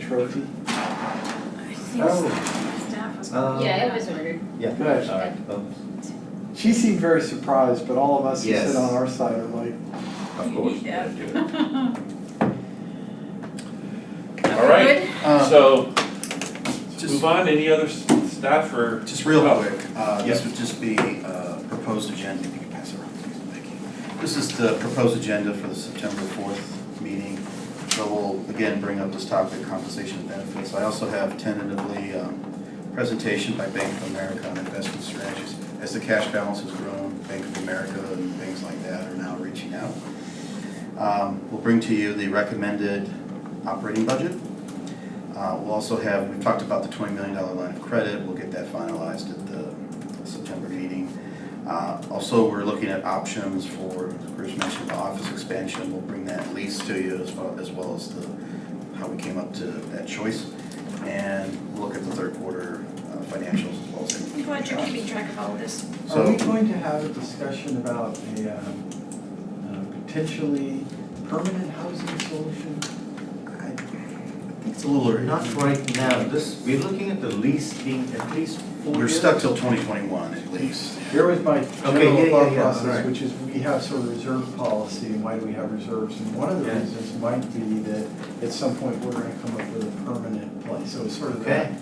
trophy? I think Oh, staff was. Um, Yeah, it was ordered. good. All right, well, She seemed very surprised, but all of us who Yes. sit on our side are like, of course, we gotta do it. All right, Uh-huh. Um, so Just, move on, any other s- staff or? just real Oh. quick, uh, this Yeah. would just be uh, proposed agenda, if you could pass it around, please, thank you. This is the proposed agenda for the September 4th meeting. So we'll again bring up this topic, compensation and benefits. I also have tentatively um, presentation by Bank of America on investment strategies. As the cash balance has grown, Bank of America and things like that are now reaching out. Um, We'll bring to you the recommended operating budget. Uh, We'll also have, we've talked about the $20 million line of credit, we'll get that finalized at the September meeting. Uh, Also, we're looking at options for, Bruce mentioned the office expansion, we'll bring that lease to you as well, as well as the, how we came up to that choice. And we'll look at the third quarter uh, financials as well as. I'm glad you're keeping track of all this. are we So, going to have a discussion about a um, uh, potentially permanent housing solution? I think it's a little, early. Not right now, this, we're looking at the lease being at least four we're years. stuck till 2021 at least. Here was my yeah, general yeah, thought yeah, process, alright. which is we have sort of reserve policy and why do we have reserves? And one of the Yeah. reasons might be that at some point we're gonna come up with a permanent place, so it's sort of that Okay.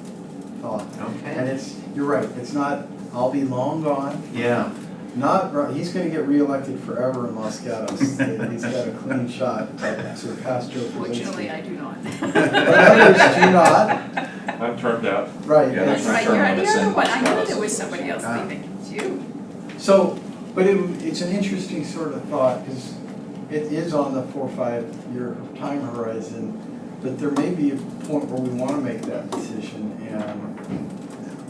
thought. And Okay, it's, you're right, it's not, I'll be long gone, yeah, not, ri- he's gonna get reelected forever in Los Gatos. He's got a clean shot to surpass Joe Fortunately, Krasinski. I do not. But others do not, I'm termed out. right. Yeah, That's that's right, right. you're on the Term other limits one, I and- knew there was somebody else Ah. leaving, it's you. So, but it, it's an interesting sort of thought, because it is on the four, five year time horizon, but there may be a point where we wanna make that decision, and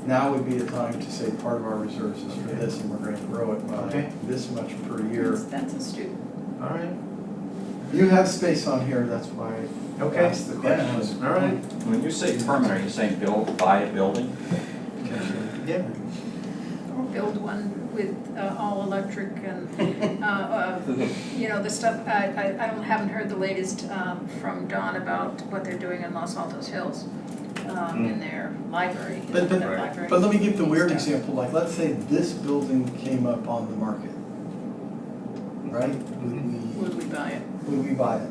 now would be the time to say part of our reserves is for this, and we're gonna grow it by Okay. this much per year. That's a student. all right, You have space on here, that's why I okay, asked the yeah, question. all right, When you say permanent, are you saying build, buy a building? yeah. Or build one with uh, all electric and, uh, uh, you know, the stuff, I, I I don't- haven't heard the latest um, from Don about what they're doing in Los Altos Hills um, in their library, Hmm. But- but- their library. But let me give the weird Stuff. example, like, let's say this building came up on the market, right? Would we- Would we buy it? would we buy it?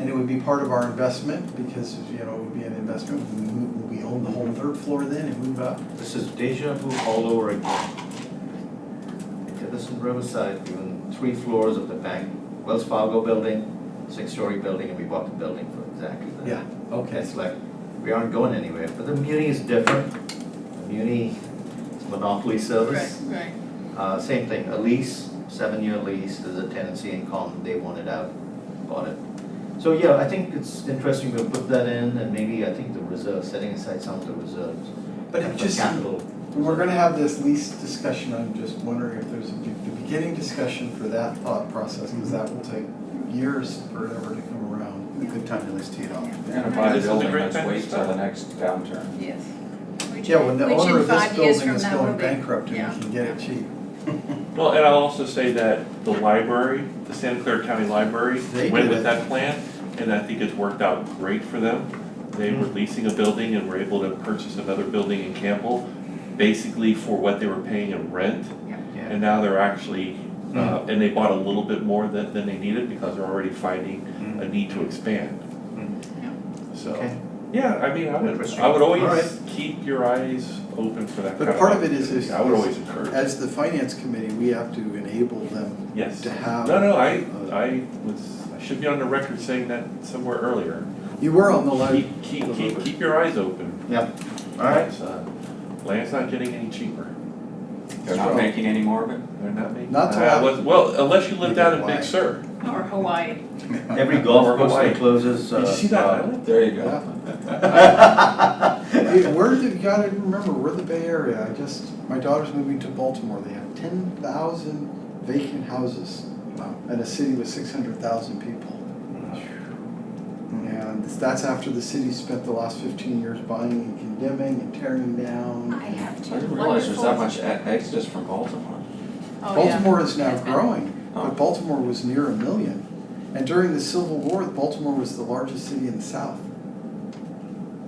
And it would be part of our investment because, you know, it would be an investment, we, move- we own the whole third floor then and move up. This is deja vu all over again. I did this in Riverside, even three floors of the bank, Wells Fargo building, six-story building, and we bought the building for exactly that. Yeah, Okay, it's like, we aren't going anywhere, but the muni is different. The Muni is monopoly service. Right, Uh, same thing, a lease, seven-year lease, there's a tenancy in common, they want it out, bought it. So, yeah, I think it's interesting, we'll put that in, and maybe I think the reserve, setting aside some of the reserves. But and it for just, Capital. we're gonna have this lease discussion, I'm just wondering if there's a, be- the beginning discussion for that thought process, because that will take years forever to come around. A good time to at least tee it off. You're gonna buy a This is a building, great let's time to wait till start. the next downturn. right, yes. Which Yeah, when the in- which in owner of this five years building from is now will going be- bankrupt and yeah. we can get it cheap. Well, and I'll also say that the library, the Santa Clara County Library, They went did it. with that plan, and I think it's worked out great for them. They were Hmm. leasing a building and were able to purchase another building in Campbell, basically for what they were paying in rent. Yeah. And now they're actually, uh, Mm-hmm. and they bought a little bit more than, than they needed because they're already finding Mm-hmm. a need to expand. Okay. So, yeah, I mean, I would, I would always keep your eyes open for that But kind of part of it is- opportunity. is- I would is- always encourage, As the finance committee, we have to enable them yes. to have. No, no, I, uh, I was, I should be on the record saying that somewhere earlier. You were on the line. Keep, keep, keep, keep your eyes open. All right, It's, uh, Land's not getting any cheaper. They're not Sure. making any more of it? They're not making. Not till Uh, after- well- Well, unless you live down in Why? Big Sur. Or Hawaii. every golf Or course Hawaii. that closes, uh. Did you see that island? There you Yeah. go. Hey, We're the, you gotta remember, we're the Bay Area, I just, my daughter's moving to Baltimore, they have ten thousand vacant houses. In a city with six hundred thousand people. Hmm. And that's after the city spent the last fifteen years buying and condemning and tearing I down. have two I wonderful. didn't realize there's that much e- exodus from Baltimore. Oh, yeah. Baltimore is now Has been. growing, Oh. but Baltimore was near a million. And during the Civil War, Baltimore was the largest city in the South.